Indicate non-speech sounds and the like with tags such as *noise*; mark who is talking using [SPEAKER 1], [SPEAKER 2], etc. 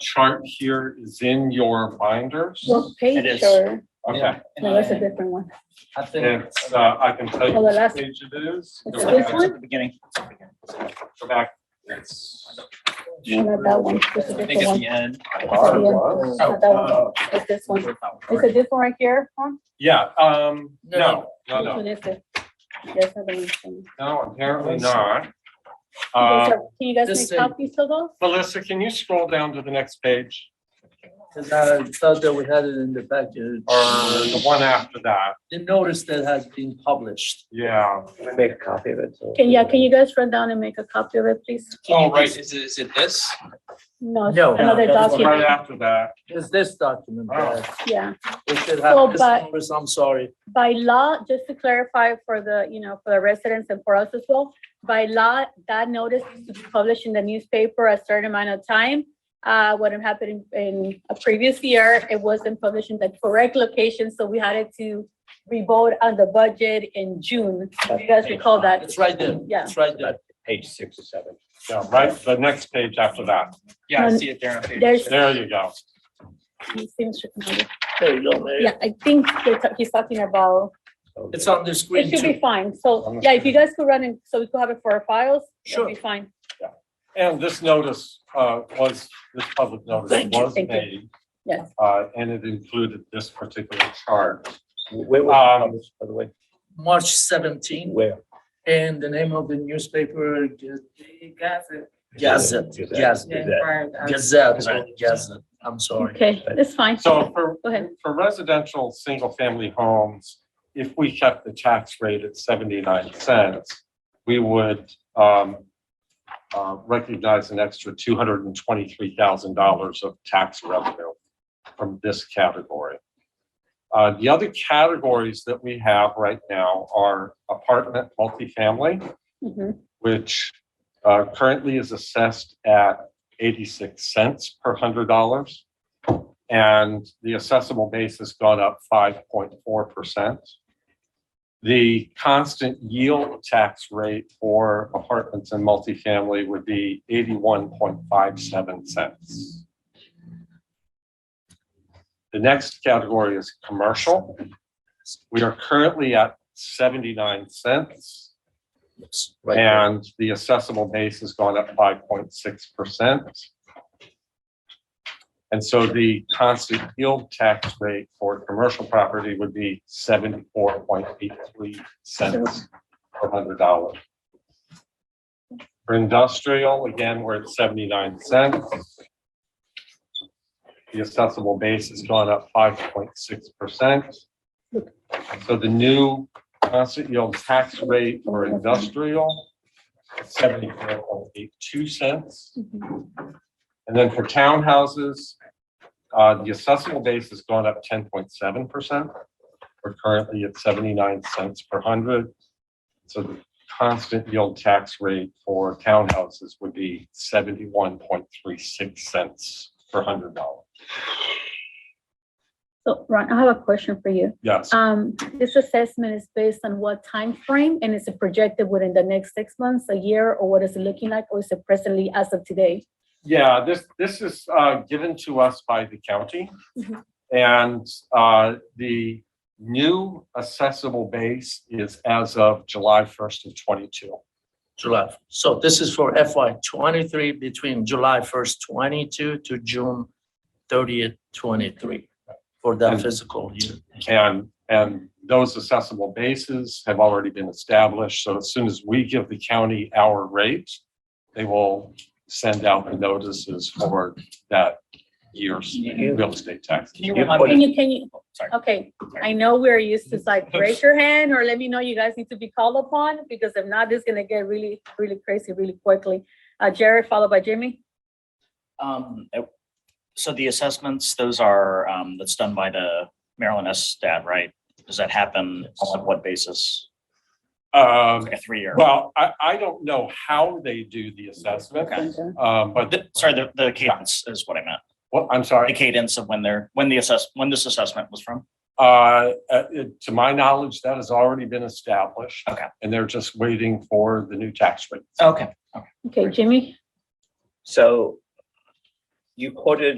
[SPEAKER 1] chart here is in your binders?
[SPEAKER 2] What
[SPEAKER 3] It
[SPEAKER 2] page
[SPEAKER 3] is.
[SPEAKER 2] or,
[SPEAKER 1] Okay,
[SPEAKER 3] Yeah,
[SPEAKER 2] no, that's a
[SPEAKER 3] and
[SPEAKER 2] different one.
[SPEAKER 3] I think.
[SPEAKER 1] it's, uh, I can tell you
[SPEAKER 2] Oh, the
[SPEAKER 1] which
[SPEAKER 2] last-
[SPEAKER 1] page it is.
[SPEAKER 2] It's
[SPEAKER 1] Go
[SPEAKER 2] this
[SPEAKER 1] back-
[SPEAKER 2] one?
[SPEAKER 3] At the beginning.
[SPEAKER 1] Go back. It's-
[SPEAKER 2] No, not that one. It's a
[SPEAKER 3] I think
[SPEAKER 2] different
[SPEAKER 3] it's
[SPEAKER 2] one.
[SPEAKER 3] the end.
[SPEAKER 2] the
[SPEAKER 1] Oh,
[SPEAKER 2] Not that one.
[SPEAKER 1] uh,
[SPEAKER 2] It's this one. Is it this one right here? huh?
[SPEAKER 1] Yeah, um,
[SPEAKER 3] Oh, No,
[SPEAKER 1] no, no,
[SPEAKER 2] Which
[SPEAKER 1] no,
[SPEAKER 2] one is it? There's another one. Can
[SPEAKER 1] no, apparently not.
[SPEAKER 2] you guys-
[SPEAKER 1] Uh,
[SPEAKER 2] can you guys
[SPEAKER 3] this
[SPEAKER 2] make
[SPEAKER 3] thing.
[SPEAKER 2] copies of those?
[SPEAKER 1] Melissa, can you scroll down to the next page
[SPEAKER 4] Cause I thought that we had it in the package.
[SPEAKER 1] or the one after that?
[SPEAKER 4] The notice that has been published.
[SPEAKER 1] Yeah.
[SPEAKER 5] I make a copy of it. so-
[SPEAKER 2] Can, yeah, can you guys run down and make a copy of it, please?
[SPEAKER 1] Oh, right,
[SPEAKER 3] Is it, is it this?
[SPEAKER 2] No, it's
[SPEAKER 4] No, no,
[SPEAKER 2] another
[SPEAKER 4] that's
[SPEAKER 1] it's right
[SPEAKER 2] document,
[SPEAKER 1] after that.
[SPEAKER 4] It's this document that
[SPEAKER 2] yeah.
[SPEAKER 4] we should
[SPEAKER 2] So,
[SPEAKER 4] have this
[SPEAKER 2] but-
[SPEAKER 4] notice, I'm sorry.
[SPEAKER 2] by law, just to clarify for the, you know, for the residents and for us as well, by law, that notice is to be published in the newspaper a certain amount of time. Uh, what had happened in- in a previous year, it wasn't published in the correct location, so we had it to revote on the budget in June. If You guys recall that?
[SPEAKER 4] It's right there.
[SPEAKER 2] Yeah.
[SPEAKER 4] It's right there.
[SPEAKER 5] Page six or seven.
[SPEAKER 1] Yeah, right, the next page after that.
[SPEAKER 3] Yeah, I
[SPEAKER 2] No,
[SPEAKER 3] see it there on page.
[SPEAKER 2] there's-
[SPEAKER 3] six.
[SPEAKER 1] There you go.
[SPEAKER 2] It seems to be-
[SPEAKER 4] There you go, Mayor.
[SPEAKER 2] Yeah, I think they're ta- he's talking about,
[SPEAKER 4] It's on the
[SPEAKER 2] it
[SPEAKER 4] screen
[SPEAKER 2] should be
[SPEAKER 4] too.
[SPEAKER 2] fine. So, yeah, if you guys could run and so we could have it for our files, it'll be fine.
[SPEAKER 1] And this notice uh, was, this public notice
[SPEAKER 2] Thank you,
[SPEAKER 1] was
[SPEAKER 2] thank you.
[SPEAKER 1] made.
[SPEAKER 2] Yes.
[SPEAKER 1] uh, And it included this particular chart.
[SPEAKER 5] Where
[SPEAKER 1] Um,
[SPEAKER 5] was it published, by the way?
[SPEAKER 4] March seventeenth,
[SPEAKER 5] Where?
[SPEAKER 4] and the name of the newspaper,
[SPEAKER 6] Gazette.
[SPEAKER 4] Gazette,
[SPEAKER 5] Gazette.
[SPEAKER 4] Gazette,
[SPEAKER 5] Gazette.
[SPEAKER 4] Gazette, Gazette. I'm sorry.
[SPEAKER 2] Okay, it's fine.
[SPEAKER 1] So for,
[SPEAKER 2] Go ahead.
[SPEAKER 1] for residential, single-family homes, if we kept the tax rate at 79 cents, we would um, uh, recognize an extra $223,000 of tax revenue from this category. Uh, The other categories that we have right now are apartment, multifamily,
[SPEAKER 2] Mhm.
[SPEAKER 1] which uh, currently is assessed at 86 cents per hundred dollars. And the assessable base has gone up 5.4%. The constant yield tax rate for apartments and multifamily would be 81.57 cents. The next category is commercial. We are currently at 79 cents.
[SPEAKER 4] Yes, Right. there.
[SPEAKER 1] And the assessable base has gone up five point six percent. And so the constant yield tax rate for commercial property would be seventy-four point eight three cents per hundred dollar. For industrial, again, we're at seventy-nine cents. The assessable base has gone up five point six percent. So the new constant yield tax rate for industrial, seventy-four point eight two cents.
[SPEAKER 2] Mhm.
[SPEAKER 1] And then for townhouses, uh, the assessable base has gone up ten point seven percent. We're currently at seventy-nine cents per hundred. So the constant yield tax rate for townhouses would be seventy-one point three six cents per hundred dollars.
[SPEAKER 2] So Ron, I have a question for you.
[SPEAKER 1] Yes,
[SPEAKER 2] Um, this assessment is based on what time frame, and is it projected within the next six months, a year, or what is it looking like, or is it presently as of today?
[SPEAKER 1] yeah, this, this is, uh, given to us by the county.
[SPEAKER 2] Mhm.
[SPEAKER 1] And uh, the new assessable base is as of July 1st of '22.
[SPEAKER 4] July. So this is for FY twenty-three between July first twenty-two to June thirtieth twenty-three for that
[SPEAKER 1] And-
[SPEAKER 4] physical year.
[SPEAKER 1] And, and those assessable bases have already been established. So as soon as we give the county our rate, they will send out the notices for that year's real estate tax.
[SPEAKER 3] Can you remind
[SPEAKER 2] Can
[SPEAKER 3] me?
[SPEAKER 2] you, can you,
[SPEAKER 3] oh, Sorry.
[SPEAKER 2] okay, I know we're used to
[SPEAKER 3] *laughs*
[SPEAKER 2] like, raise your hand, or let me know you guys need to be called upon, because if not, this is gonna get really, really crazy really quickly. Uh, Jared, followed by Jimmy.
[SPEAKER 3] Um, uh, so the assessments, those are, um, that's done by the Maryland S stat, right? Does that happen on what basis?
[SPEAKER 1] Um,
[SPEAKER 3] Like a three-year?
[SPEAKER 1] Well, I, I don't know how they do the assessment,
[SPEAKER 3] Okay.
[SPEAKER 1] um, but,
[SPEAKER 3] The- Sorry, the, the cadence is what I meant.
[SPEAKER 1] what, I'm
[SPEAKER 3] The
[SPEAKER 1] sorry.
[SPEAKER 3] cadence of when they're, when the assess, when this assessment was from?
[SPEAKER 1] Uh, uh, it- to my knowledge, that has already been established.
[SPEAKER 3] Okay.
[SPEAKER 1] And they're just waiting for the new tax rate.
[SPEAKER 3] Okay.
[SPEAKER 2] Okay, Jimmy,
[SPEAKER 5] So you quoted